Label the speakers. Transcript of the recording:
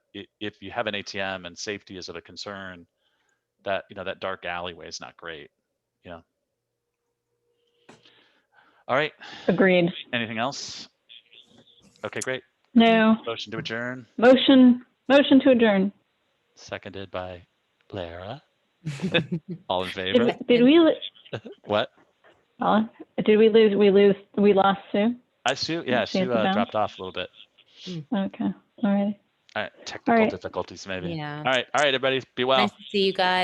Speaker 1: i- if you have an ATM and safety is of a concern, that, you know, that dark alleyway is not great, you know? All right,
Speaker 2: Agreed.
Speaker 1: anything else? Okay, great.
Speaker 2: No.
Speaker 1: Motion to adjourn,
Speaker 2: Motion, motion to adjourn.
Speaker 1: seconded by Lara. All in favor?
Speaker 2: Did did we, lo-
Speaker 1: What?
Speaker 2: Paula? did we lose, we lose, we lost Sue?
Speaker 1: I Sue, yeah,
Speaker 2: She
Speaker 1: Sue
Speaker 2: has to
Speaker 1: uh,
Speaker 2: bounce.
Speaker 1: dropped off a little bit.
Speaker 2: Okay, all right.
Speaker 1: All right, technical
Speaker 2: right.
Speaker 1: difficulties maybe.
Speaker 3: Yeah.
Speaker 1: All right, all right, everybody, be well.
Speaker 3: Nice to see you guys.